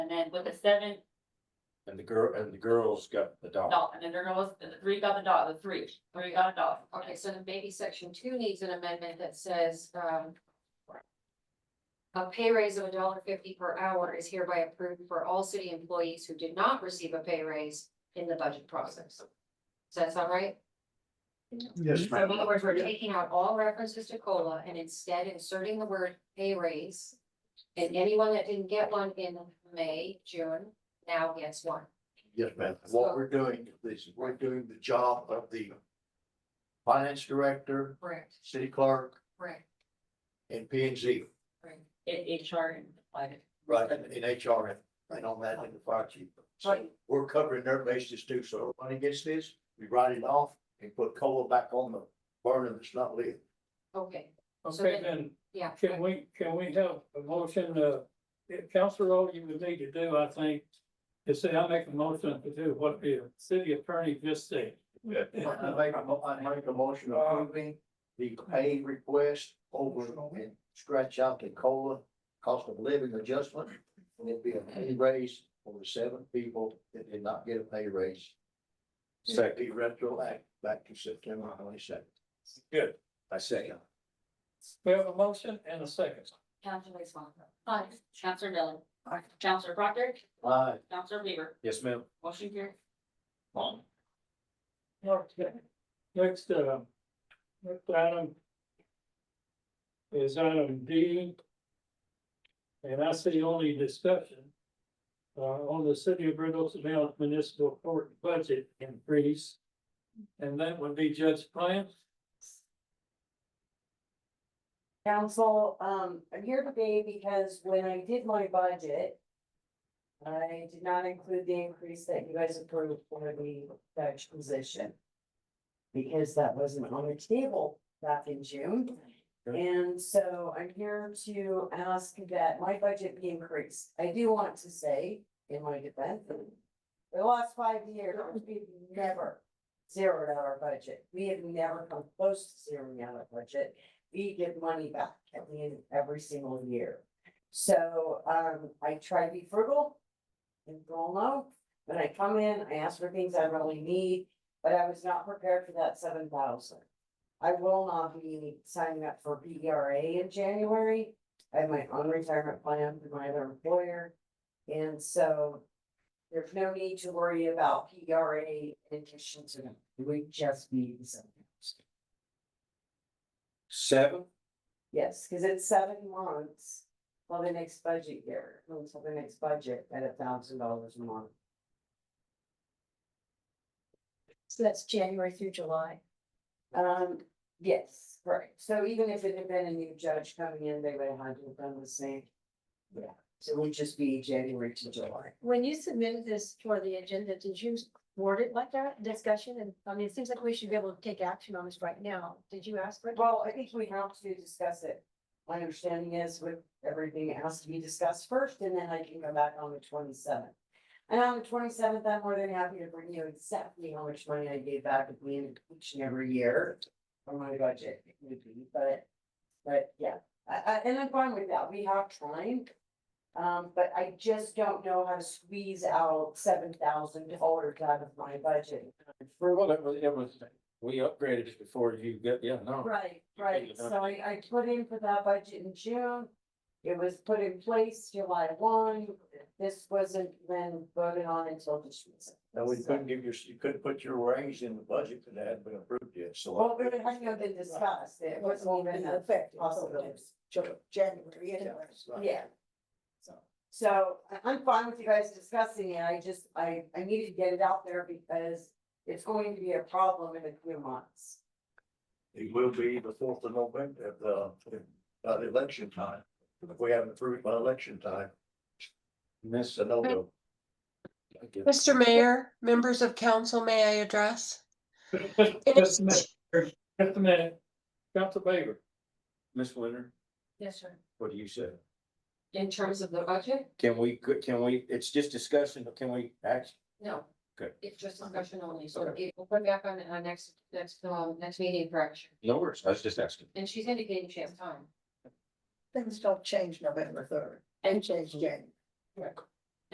then with the seven, And the girl, and the girls got the dog. no, and then there goes, the three got the dog, the three, three got a dog. Okay, so then maybe section two needs an amendment that says, um. A pay raise of a dollar fifty per hour is hereby approved for all city employees who did not receive a pay raise in the budget process. Does that sound right? Yes, So in other words, we're taking out all references to COLA and instead inserting the word pay raise. And anyone that didn't get one in May, June, now gets one. Yes, ma'am. What we're doing is we're doing the job of the finance director, Correct, city clerk correct, and P and Z, correct. In HR and like. right, in HR and on that in the fire chief. So we're covering their bases too. So when it gets this, we write it off and put cola back on the burner that's not lit. Okay, So Okay, then- then, yeah. can we, can we have a motion, uh, Counselor, all you would need to do, I think, is say, I make a motion to do what the city attorney just said. I make a mo- I make a motion approving the pay request over and scratch out the COLA cost of living adjustment. And it'd be a pay raise for the seven people that did not get a pay raise. It'd Second, Be retroactive back to September twenty second. Good. I second. We have a motion and a second. Counselor Swanton. Aye. Counselor Miller. Aye. Counselor Proctor, Aye. Counselor Weaver, yes, ma'am. motion carried. Okay. Next, uh, next item is item D. And I see only discussion uh, on the city of Red Oaks Mountain Municipal Court budget increase. And that would be Judge Plant. Council, um, I'm here today because when I did my budget. I did not include the increase that you guys approved for the Dutch position. Because that wasn't on the table back in June. And so I'm here to ask that my budget be increased. I do want to say, in my defense. The last five years, we've never zeroed out our budget. We have never come close to zeroing out our budget we give money back at the end of every single year. So, um, I try to be frugal and go low. When I come in, I ask for things I really need, but I was not prepared for that seven thousand. I will not be signing up for B R A in January. I have my own retirement plan with my other employer. And so there's no need to worry about P R A in addition to them. We just need the seven thousand. Seven, Yes, because it's seven months, well, the next budget year, until the next budget at a thousand dollars a month. So that's January through July. Um, yes, right, so even if it had been a new judge coming in, they would have had to have done the same. Yeah, so it would just be January to July. When you submitted this for the agenda, did you word it like that, discussion? And I mean, it seems like we should be able to take action on this right now. Did you ask for it? Well, I think we have to discuss it. My understanding is with everything, it has to be discussed first, and then I can go back on the twenty seventh. And on the twenty seventh, I'm more than happy to bring you exactly how much money I gave back at the end of each and every year. For my budget, it would be, but, but yeah, I, I, and I'm fine with that, we have time. Um, but I just don't know how to squeeze out seven thousand dollars out of my budget. well, that was, it was, we upgraded it before you got, yeah, no. Right, Yeah. right, so I, I put in for that budget in June. It was put in place July one, this wasn't then voted on until this year. Now, we couldn't give your, you couldn't put your raise in the budget because it hadn't been approved yet, so. Well, it hadn't been discussed, it wasn't even a possibility. January anyway. Yeah. So I- I'm fine with you guys discussing it, I just, I, I needed to get it out there because it's going to be a problem in a few months. It will be the fourth of November, uh, by the election time. If we haven't approved by election time, Miss, it's a no go. I guess. Mr. Mayor, members of council, may I address? Just a minute, just a minute. Council Baker. Miss Winter, Yes, sir. what do you say? In terms of the budget? Can we, can we, it's just discussion, but can we act? No. Good. It's just discussion only, so it will come back on our next, next, um, next meeting for action. No worries, I was just asking. And she's indicating she has time. Things don't change November third. And change January.